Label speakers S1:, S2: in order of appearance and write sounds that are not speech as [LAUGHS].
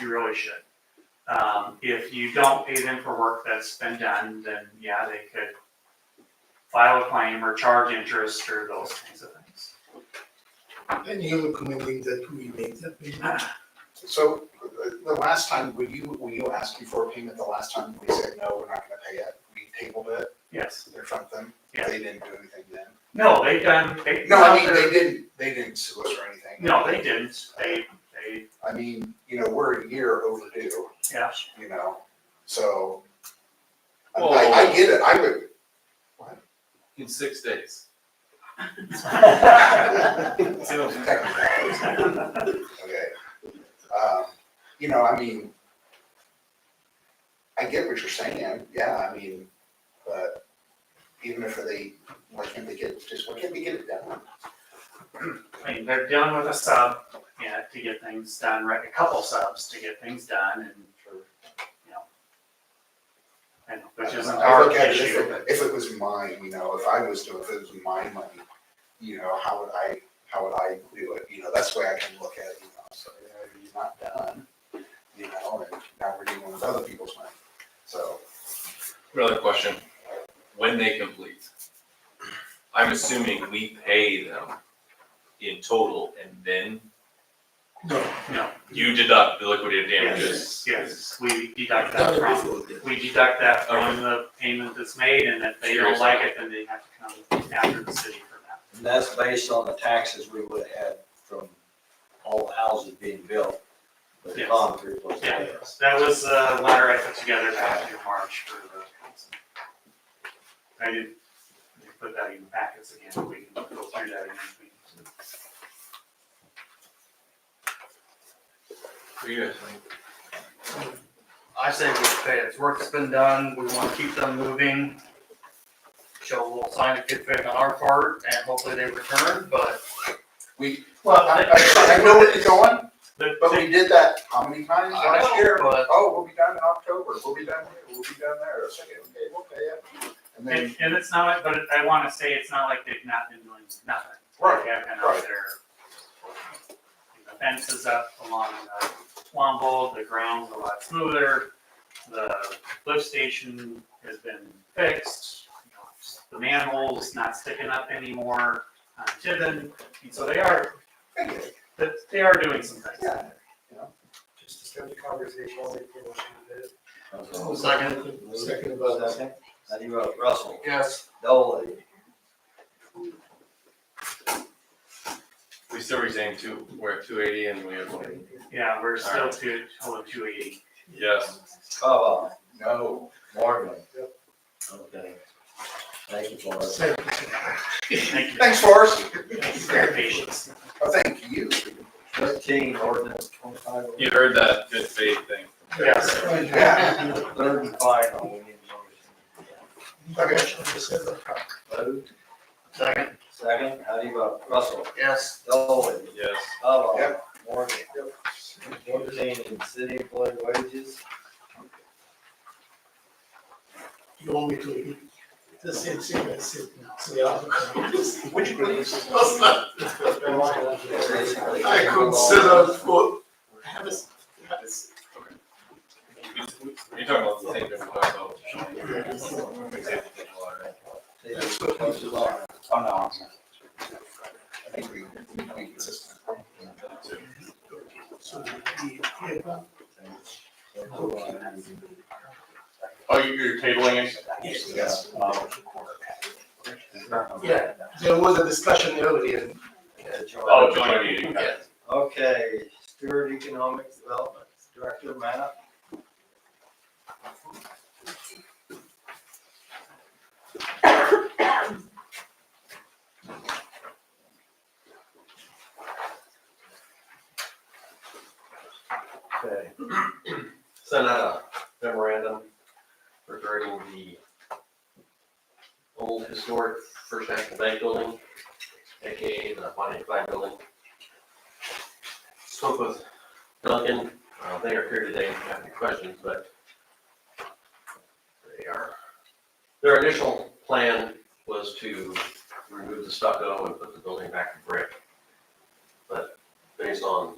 S1: you really should. Um, if you don't pay them for work that's been done, then yeah, they could file a claim or charge interest or those kinds of things. [LAUGHS]
S2: Any other commitment that we make that we,
S3: So uh, the last time, were you, were you asking for a payment the last time we said, no, we're not gonna pay it? We tabled it
S1: Yes,
S3: or something?
S1: Yeah.
S3: They didn't do anything then?
S1: no, they done, they.
S3: No, I mean, they didn't, they didn't sue us or anything.
S1: No, they didn't, they, they,
S3: I mean, you know, we're a year overdue,
S1: yeah,
S3: you know, so. I, I I get it, I would,
S4: in six days.
S1: [LAUGHS]
S3: technically, okay. Um, You know, I mean, I get what you're saying, yeah, I mean, but even if they, why can't they get, just why can't they get it done?
S1: I mean, they're dealing with a sub, yeah, to get things done, right, a couple subs to get things done and for, you know. And which isn't
S3: I
S1: our
S3: look at it, if
S1: issue,
S3: it- If it was mine, you know, if I was doing, if it was my money, you know, how would I, how would I do it? You know, that's the way I can look at it, you know, so, you know, you're not done, you know, and now we're dealing with other people's money, so.
S4: Another question, when they complete. I'm assuming we pay them in total and then
S1: no,
S4: you deduct the liquidated damages.
S1: yes, yes, we deduct that
S2: that
S1: from.
S2: before that?
S1: we deduct that from the payment that's made, and if they don't like it, then they have to come after the city for that.
S5: And that's based on the taxes we would have had from all the houses being built, but the
S1: Yes.
S5: concrete was
S1: Yeah.
S5: there.
S1: That was a letter I put together back in March for the council. I did, I did put that in the packets again, we can go through that again.
S4: What do you guys think?
S6: I say we pay it. It's work's been done. We want to keep them moving. Show a little sign of good faith on our part and hopefully they return, but
S3: Well, I, I, I know where you're going,
S1: The-
S3: but we did that how many times
S6: I
S3: last year?
S6: don't, but
S3: Oh, we'll be done in October, we'll be done here, we'll be done there, it's like, okay, we'll pay it. And then,
S1: And, and it's not, but I wanna say it's not like they've not been doing nothing.
S3: Right,
S1: They have been
S3: right.
S1: out there. The fence is up along the Wamble, the ground's a lot smoother, the lift station has been fixed. you know, The manhole's not sticking up anymore on Tiven, and so they are,
S3: I get it,
S1: but they are doing some things.
S3: yeah,
S7: Just to start the conversation, I'll make a motion that
S6: Second.
S2: Second about that.
S5: Second. How do you vote? Russell,
S6: yes,
S5: Dolly,
S4: We still retain two, we're at two eighty and we have one.
S1: Yeah, we're still
S4: Alright.
S1: to, oh, two eighty.
S4: Yes.
S5: Baba,
S3: no,
S5: Morgan. Okay. Thank you, Flores.
S1: Thank you.
S3: thanks, Forrest,
S1: Thanks for your patience.
S3: Oh, thank you.
S5: Thirteen, ordinance twenty-five.
S4: You heard that good faith thing.
S1: Yes.
S3: Yeah,
S5: Third and final, we need a
S3: okay,
S5: motion. Vote.
S6: second,
S5: Second, how do you vote? Russell,
S6: yes,
S5: Dolly,
S4: Yes.
S5: Baba,
S3: Yep.
S5: Morgan. Fourteen, city employee wages.
S2: You want me to read the same thing I said now? So yeah.
S3: would you please?
S5: I
S2: for. Have a, s- have a s-
S4: You're talking about the same thing we talked about. We did it in July, right?
S5: That's what comes to law.
S3: Oh, no, I'm sorry. I think we, we can be consistent.
S2: so the- yeah,
S4: Oh, you- you're tabling it?
S3: Yes.
S7: Yeah.
S2: There was a discussion earlier.
S4: Oh, joint meeting.
S7: Yes.
S5: Okay, Stewart Economic Development Director Matt.
S8: Okay. Sent out a memorandum regarding the old historic First National Bank building, AKA the Bonnie Clyde building. Spoke with Duncan, uh, they are here today, if you have any questions, but they are, their initial plan was to remove the stucco and put the building back to brick. But based on